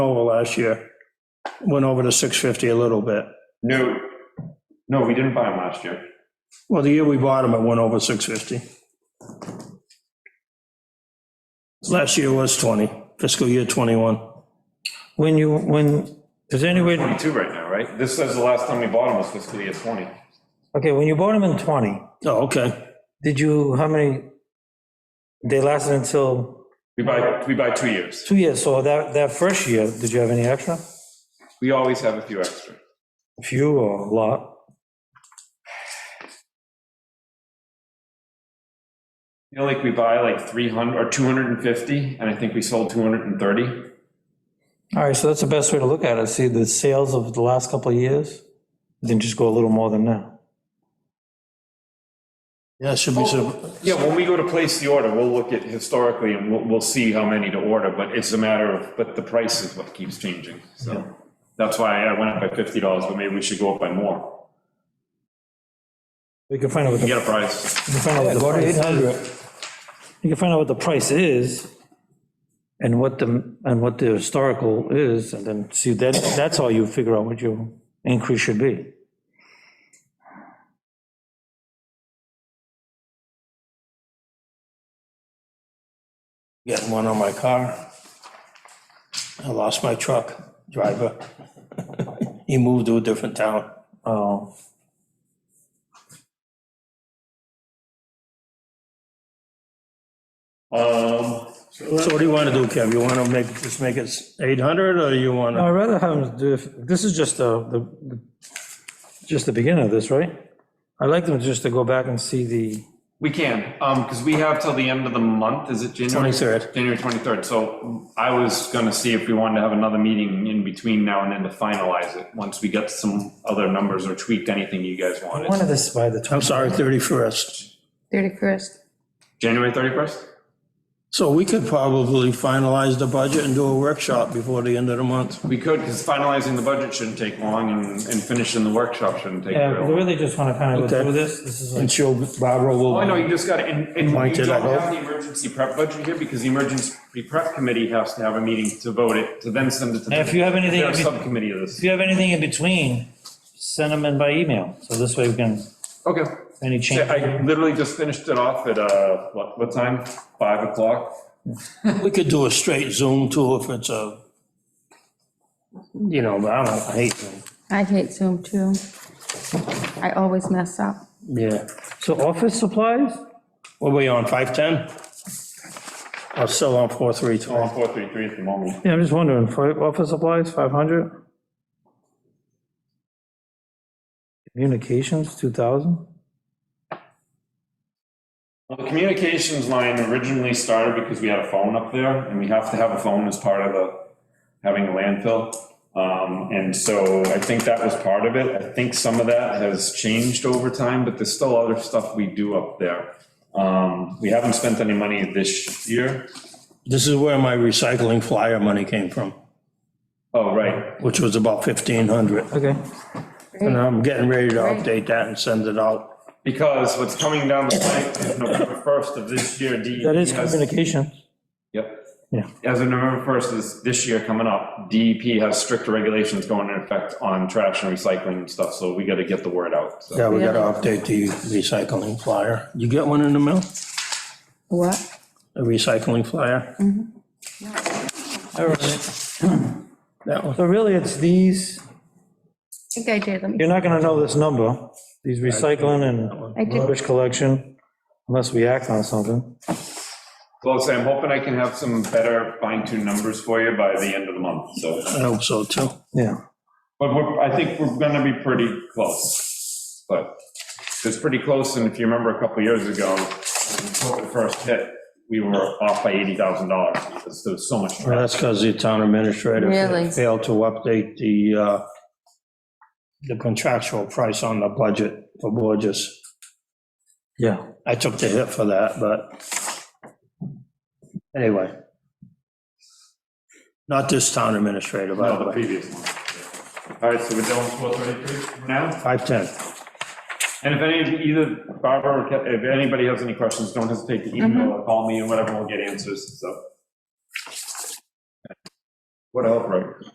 last year. Went over to 650 a little bit. No, no, we didn't buy them last year. Well, the year we bought them, it went over 650. Last year was 20, fiscal year 21. When you, when, is there any way, Twenty-two right now, right? This says the last time we bought them was fiscal year twenty. okay, when you bought them in 20, Oh, okay. did you, how many, they lasted until We buy, we buy two years. two years, so that, that first year, did you have any extra? We always have a few extra. Few or a lot? You know, like we buy like three hundred or two hundred and fifty, and I think we sold two hundred and thirty. All right, so that's the best way to look at it, see the sales of the last couple of years, then just go a little more than that. Yeah, it should be, some- Yeah, when we go to place the order, we'll look at historically and we'll, we'll see how many to order, but it's a matter of, but the price is what keeps changing, so. That's why I went up by fifty dollars, but maybe we should go up by more. We can find out what the. You Get a price. You can find out what the go to price 800. is. You can find out what the price is and what the, and what the historical is, and then see, that, that's how you figure out what your increase should be. getting one on my car. I lost my truck driver. He moved to a different town. Um, Oh, Um, So what do you want to do, Kev? You want to make, just make it 800, or you want No, to? I'd rather have them do, if- this is just the, the- just the beginning of this, right? I'd like them just to go back and see the, We can, um, because we have till the end of the month, is it January? 23rd. January 23rd, so I was gonna see if we wanted to have another meeting in between now and then to finalize it, once we got some other numbers or tweaked anything you guys I wanted. wanted this by the I'm 20. sorry, 31st. 31st. January 31st? So we could probably finalize the budget and do a workshop before the end of the month. We could, because finalizing the budget shouldn't take long, and, and finishing the workshop shouldn't take Yeah, we real long. really just want to kind of Okay. go through this, this is like. And she'll, Barbara will. Oh, I know, you just gotta, and, and Mike, you did I don't have vote? the emergency prep budget here, because the emergency prep committee has to have a meeting to vote it, to then send it to. the- If you have anything- They're a Subcommittee of If this. you have anything in between, send them in by email, so this way we can, Okay. any change. Yeah, I literally just finished it off at, uh, what, what time? Five o'clock? We could do a straight Zoom too if it's a, you know, I don't, I hate Zoom. I hate Zoom too. I always mess up. Yeah. So office supplies? What are we on, 510? I'm still on Well, 432. four, three, three at the moment. Yeah, I'm just wondering, for office supplies, 500? Communications, 2,000? Well, the communications line originally started because we had a phone up there, and we have to have a phone as part of the, having a landfill. Um, and so I think that was part of it. I think some of that has changed over time, but there's still other stuff we do up there. Um, we haven't spent any money this year. This is where my recycling flyer money came from, Oh, right. which was about 1,500. Okay. And I'm getting ready to update that and send it out. Because what's coming down the pipe, November first of this year, DEP That is has- communications. Yep. Yeah. As of November 1st, this, this year coming up, DEP has stricter regulations going into effect on trash and recycling and stuff, so we gotta get the word out, so. Yeah, we gotta update the recycling flyer. You get one in the mail? What? A recycling flyer? All right. That one? So really, it's these, I think I did. Let me- you're not gonna know this number, these recycling I and did. rubbish collection, unless we act on something. Well, so I'm hoping I can have some better fine tuned numbers for you by the end of the month, so. I hope so too. Yeah. But we're, I think we're gonna be pretty close, but it's pretty close, and if you remember a couple years ago, when COVID first hit, we were off by $80,000, because there was so much Well, trash. that's because the town administrator Really? failed to update the, uh, the contractual price on the budget for Borges. Yeah. I took the hit for that, but anyway. Not this town administrator, by the No, the way. previous one. All right, so we're down to 433 now? 510. And if any, either Barbara, or Ke- if anybody has any questions, don't hesitate to email or call me and whatever, we'll get answers, so. What help, right?